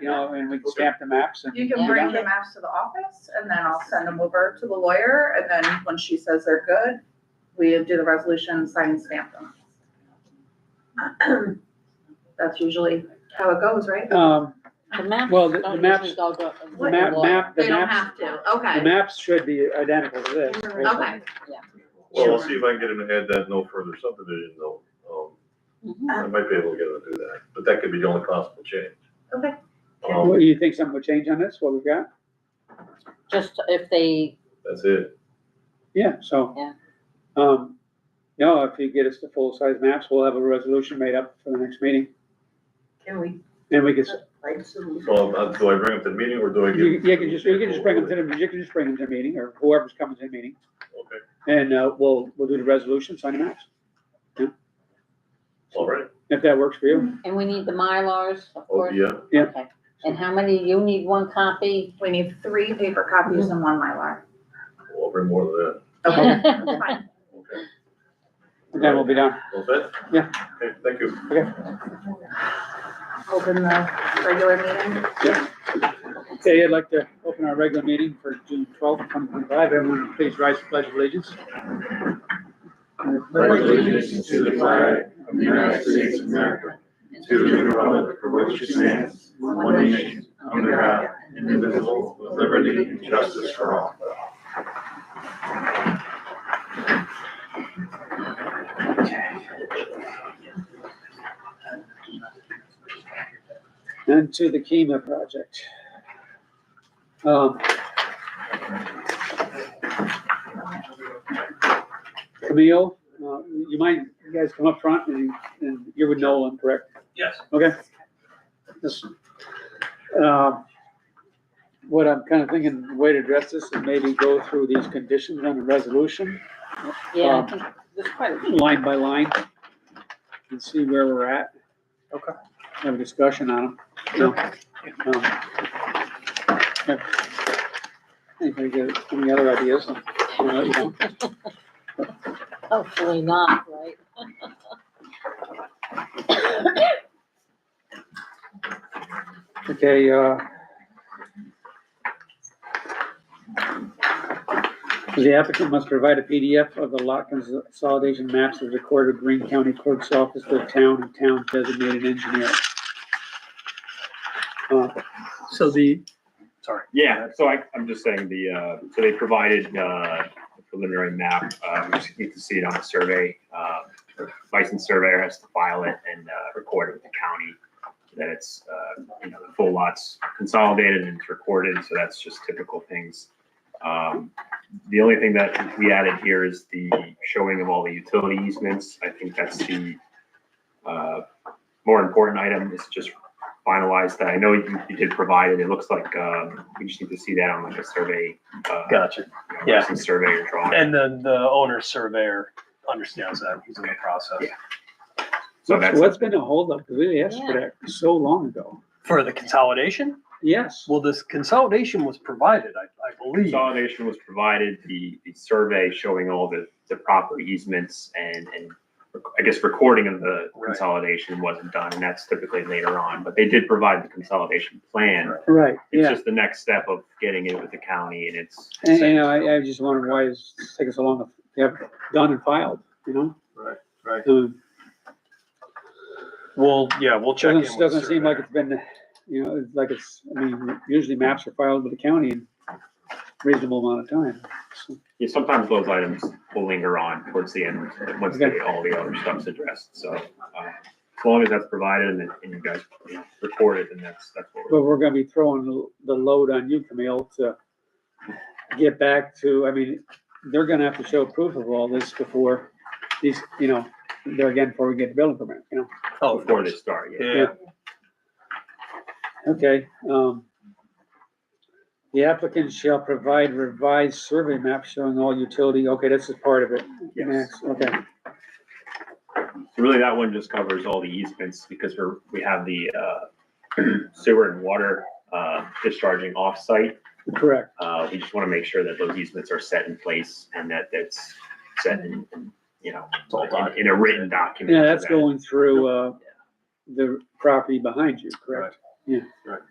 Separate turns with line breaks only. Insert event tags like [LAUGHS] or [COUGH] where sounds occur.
you know, and we can stamp the maps and.
You can
Yeah.
bring the maps to the office and then I'll send them over to the lawyer and then when she says they're good, we do the resolution, sign and stamp them. [CLEARS THROAT] That's usually how it goes, right?
Um,
The maps
Well, the-
don't
the maps-
usually go to-
the map, map, the
They don't
maps,
have to,
the
okay,
maps should be identical to this. right?
okay.
Well, I'll see if I can get him to add that no further subdivision though. Um,
Mhm.
I might be able to get him to do that, but that could be the only possible change.
Okay.
Um,
Well, you think something would change on this, what we've got?
Just if they,
that's it.
Yeah, so.
Yeah.
Um, you know, if you get us the full-size maps, we'll have a resolution made up for the next meeting.
Can we,
And we can, s-
like, some-
So I'll-
uh,
I'll- do I bring him to the meeting or do I give?
you, you can just, you can just bring them to the, you can just bring them to the meeting or whoever's coming to the meeting.
Okay,
And, uh, we'll, we'll do the resolution, sign the maps,
all right.
if that works for you.
and we need the Mylars, of
Oh,
course.
yeah,
Yeah.
Okay. And how many, you need one copy?
We need three paper copies and one
[LAUGHS]
Mylar.
I'll bring more of that.
Okay, that's fine.
Okay.
Mm-hmm.
And then we'll be done.
All set?
Yeah.
Okay, thank you.
Open the regular meeting.
Okay, I'd like to open our regular meeting for June twelfth, twenty twenty-five. Everyone, please rise to pledge of allegiance.
pledge allegiance to the flag of the United States of America, to the republic for which it stands, one nation, under God, indivisible, with liberty and justice for all.
And to the KEMA project. Um, Camille, uh, you mind, you guys come up front and, and you're with Nolan, correct?
Yes.
Okay. This, um, What I'm kind of thinking, the way to address this is maybe go through these conditions on the resolution,
Yeah,
Um,
I think there's quite a
line by line, and see where we're at.
Okay.
Have a discussion on them. Um, yeah. Anybody got any other ideas? You know, you know.
Hopefully not, right?
Okay, uh. The applicant must provide a PDF of the lot consolidation maps of the court of Green County Clerk's Office, the town and town designated engineer. Uh,
So the, sorry.
Yeah, so I, I'm just saying the, uh, so they provided, uh, the preliminary map, uh, we just need to see it on a survey. Uh, the licensed surveyor has to file it and, uh, record it with the county. That it's, uh, you know, the full lots consolidated and it's recorded, so that's just typical things. Um, the only thing that we added here is the showing of all the utility easements. I think that's the, uh, more important item is just finalize that. I know you, you did provide it. It looks like, um, we just need to see that on like a survey. uh,
Gotcha.
you know,
Yeah.
Some survey or drawing.
And then the owner surveyor understands that. He's in the process
Yeah. So
What's
that's,
what's been a holdup? Because we asked for that so long ago.
for the consolidation.
Yes,
Well, this consolidation was provided, I, I believe.
consolidation was provided, the, the survey showing all the, the proper easements and, and I guess recording of the
Right.
consolidation wasn't done, and that's typically later on, but they did provide the consolidation plan.
Right.
right,
It's
yeah.
just the next step of getting it with the county and it's.
And, you know, I, I just wondered why it's taking so long to have done and filed, you know?
Right, right.
Um,
Well, yeah, we'll check in with
Doesn't,
the
doesn't seem like
surveyor.
it's been, you know, it's like it's, I mean, usually maps are filed with the county in reasonable amount of time. so.
Yeah, sometimes those items will linger on towards the end, once they, all the other stuff's addressed, so, uh, as long as that's provided and, and you guys you know, record it, then that's, that's what we're.
But we're gonna be throwing the- the load on you, Camille, to get back to, I mean, they're gonna have to show proof of all this before these, you know, they're again, before we get the building permit, you know?
Oh,
Before they start, yeah.
Yeah,
Okay, um, the applicant shall provide revised survey map showing all utility, okay, this is part of it.
Yes.
Next, Okay,
So Really, that one just covers all the easements because we're, we have the uh, [CLEARS THROAT] sewer and water uh, discharging off-site.
correct.
Uh, We just want to make sure that those easements are set in place and that that's set in, in, you know,
It's all
in-
documented.
in a written document.
Yeah, that's
so that-
going through, uh, the property behind you, correct?
Right.